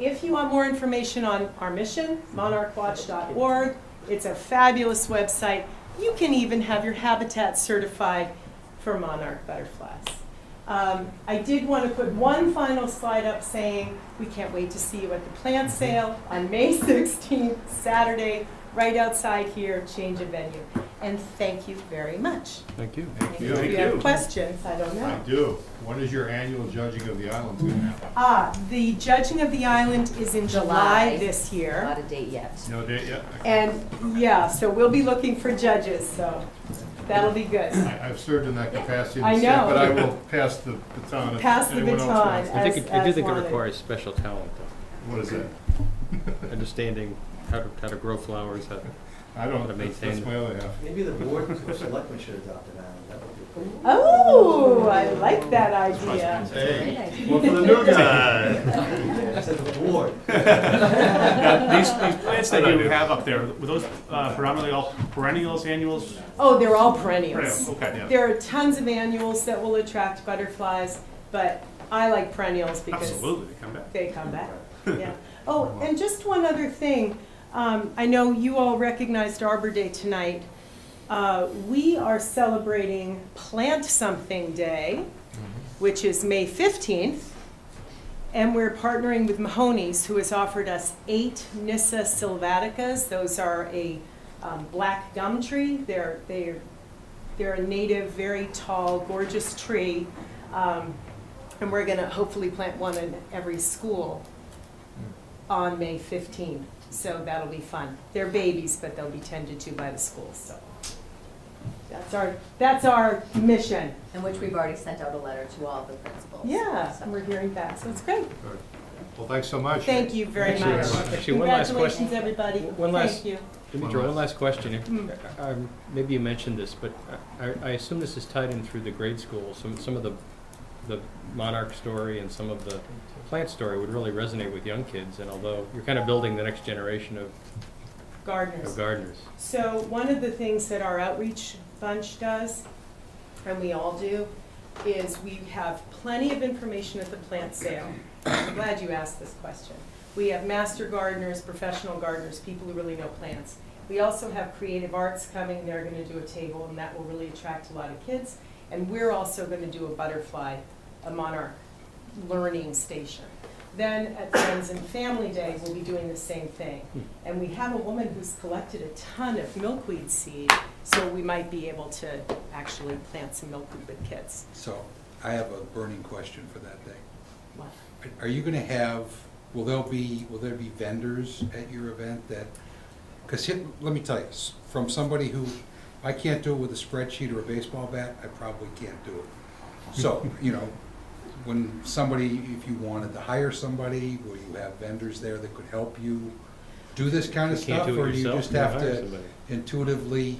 If you want more information on our mission, monarchwatch.org, it's a fabulous website. You can even have your habitat certified for monarch butterflies. Um, I did want to put one final slide up saying, we can't wait to see you at the plant sale on May 16th, Saturday, right outside here, change of venue. And thank you very much. Thank you. you. If Thank you have you. questions, I don't know. I do. When is your annual judging of the islands going to happen? Ah, the judging of the island is in July July. this year. Not a date yet. No date yet? And, yeah, so we'll be looking for judges, so that'll be good. I- I've served in that capacity in I the state, know. but I will pass the baton if Pass the anyone else baton. wants. I think, it- I do As- think it as wanted. requires special talent, though. What is that? understanding how to, how to grow flowers, how to I don't, To that's maintain- that's my other half. Maybe the board of selectmen should adopt an island, that would be pretty. Oh, I like that idea. Hey, idea. one for the new guy. I said the board. Now, These, these plants that you have up there, were those uh, predominantly all perennials, annuals? Oh, they're all Perennials, perennials. okay. There are tons of annuals that will attract butterflies, but I like perennials because Absolutely, they come back. they come back. Yeah. Oh, and just one other thing. Um, I know you all recognized Arbor Day tonight. Uh, we are celebrating Plant Something Day, which is May 15th. And we're partnering with Mahoney's, who has offered us eight Nissa sylvaticas. Those are a um, black gum tree. They're, they're, they're a native, very tall, gorgeous tree. Um, and we're going to hopefully plant one in every school Hmm. on May 15. So that'll be fun. They're babies, but they'll be tended to by the schools, so. That's our, that's our mission. In which we've already sent out a letter to all the principals. Yeah, So- and we're hearing back, so it's great. Well, thanks so much. Thank you very Actually, much. actually, one last question. Congratulations, everybody. One last- Thank you. Demetra, one last question. If- Mm. um, Maybe you mentioned this, but I, I assume this is tied in through the grade school. Some, some of the, the monarch story and some of the plant story would really resonate with young kids. And although you're kind of building the next generation of, Gardeners. of gardeners. So one of the things that our outreach bunch does, and we all do, is we have plenty of information at the plant sale. I'm glad you asked this question. We have master gardeners, professional gardeners, people who really know plants. We also have creative arts coming, they're gonna do a table, and that will really attract a lot of kids. And we're also gonna do a butterfly, a monarch learning station. Then at Friends and Family Day, we'll be doing the same thing. And we have a woman who's collected a ton of milkweed seed, so we might be able to actually plant some milkweed with kids. So I have a burning question for that day. Wow. Are you gonna have, will there be, will there be vendors at your event that, because here, let me tell you, s- from somebody who, I can't do it with a spreadsheet or a baseball bat, I probably can't do it. So, you know, when somebody, if you wanted to hire somebody, will you have vendors there that could help you do this kind of You can't stuff? do it Or do you yourself, just you have hire to somebody. intuitively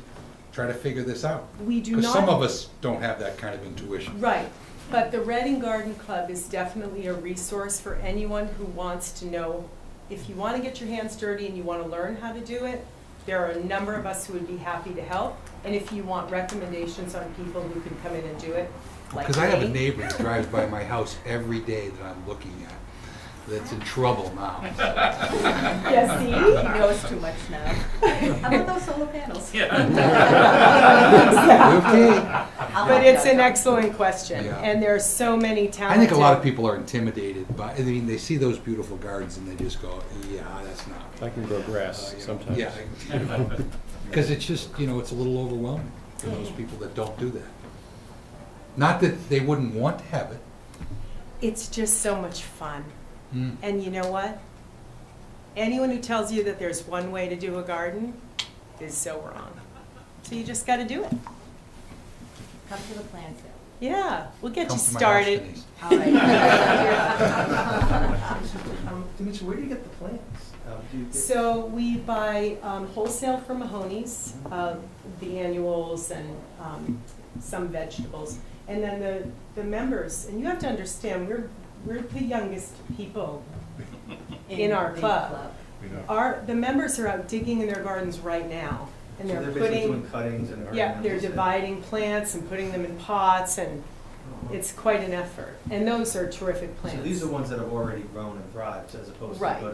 try to figure this out? We do Because not. some of us don't have that kind of intuition. Right, but the Reading Garden Club is definitely a resource for anyone who wants to know, if you want to get your hands dirty and you want to learn how to do it, there are a number of us who would be happy to help. And if you want recommendations on people who can come in and do it, like Because I have a me, neighbor that drives by my house every day that I'm looking at, that's in trouble now. Yeah, see? He knows too much now. How about those solar panels? Okay. I'll But help it's you out, an John. excellent question, Yeah. and there are so many I talented. think a lot of people are intimidated by, I mean, they see those beautiful gardens and they just go, yeah, that's not. me." I can grow grass Uh, you know, sometimes. Yeah. Because it's just, you know, it's a little overwhelming for Mm. those people that don't do that. Not that they wouldn't want to have it. It's just so much fun. Mm. And you know what? Anyone who tells you that there's one way to do a garden is so wrong. So you just got to do it. Come to the plant sale. Yeah, we'll get Come you to my house, started. Denise. All right. Um, Dimitri, where do you get the plants? Um, do you get- So we buy um, wholesale from Mahoney's, uh, the annuals and um, some vegetables. And then the, the members, and you have to understand, we're, we're the youngest people In our the club. We know. Our, the members are out digging in their gardens right now, and So they're basically doing putting, cuttings and. yeah, they're ornamentals and- dividing plants and putting them in pots, and Oh, it's quite an effort. And those are terrific plants. So these are ones that have already grown and thrived as opposed to Right. go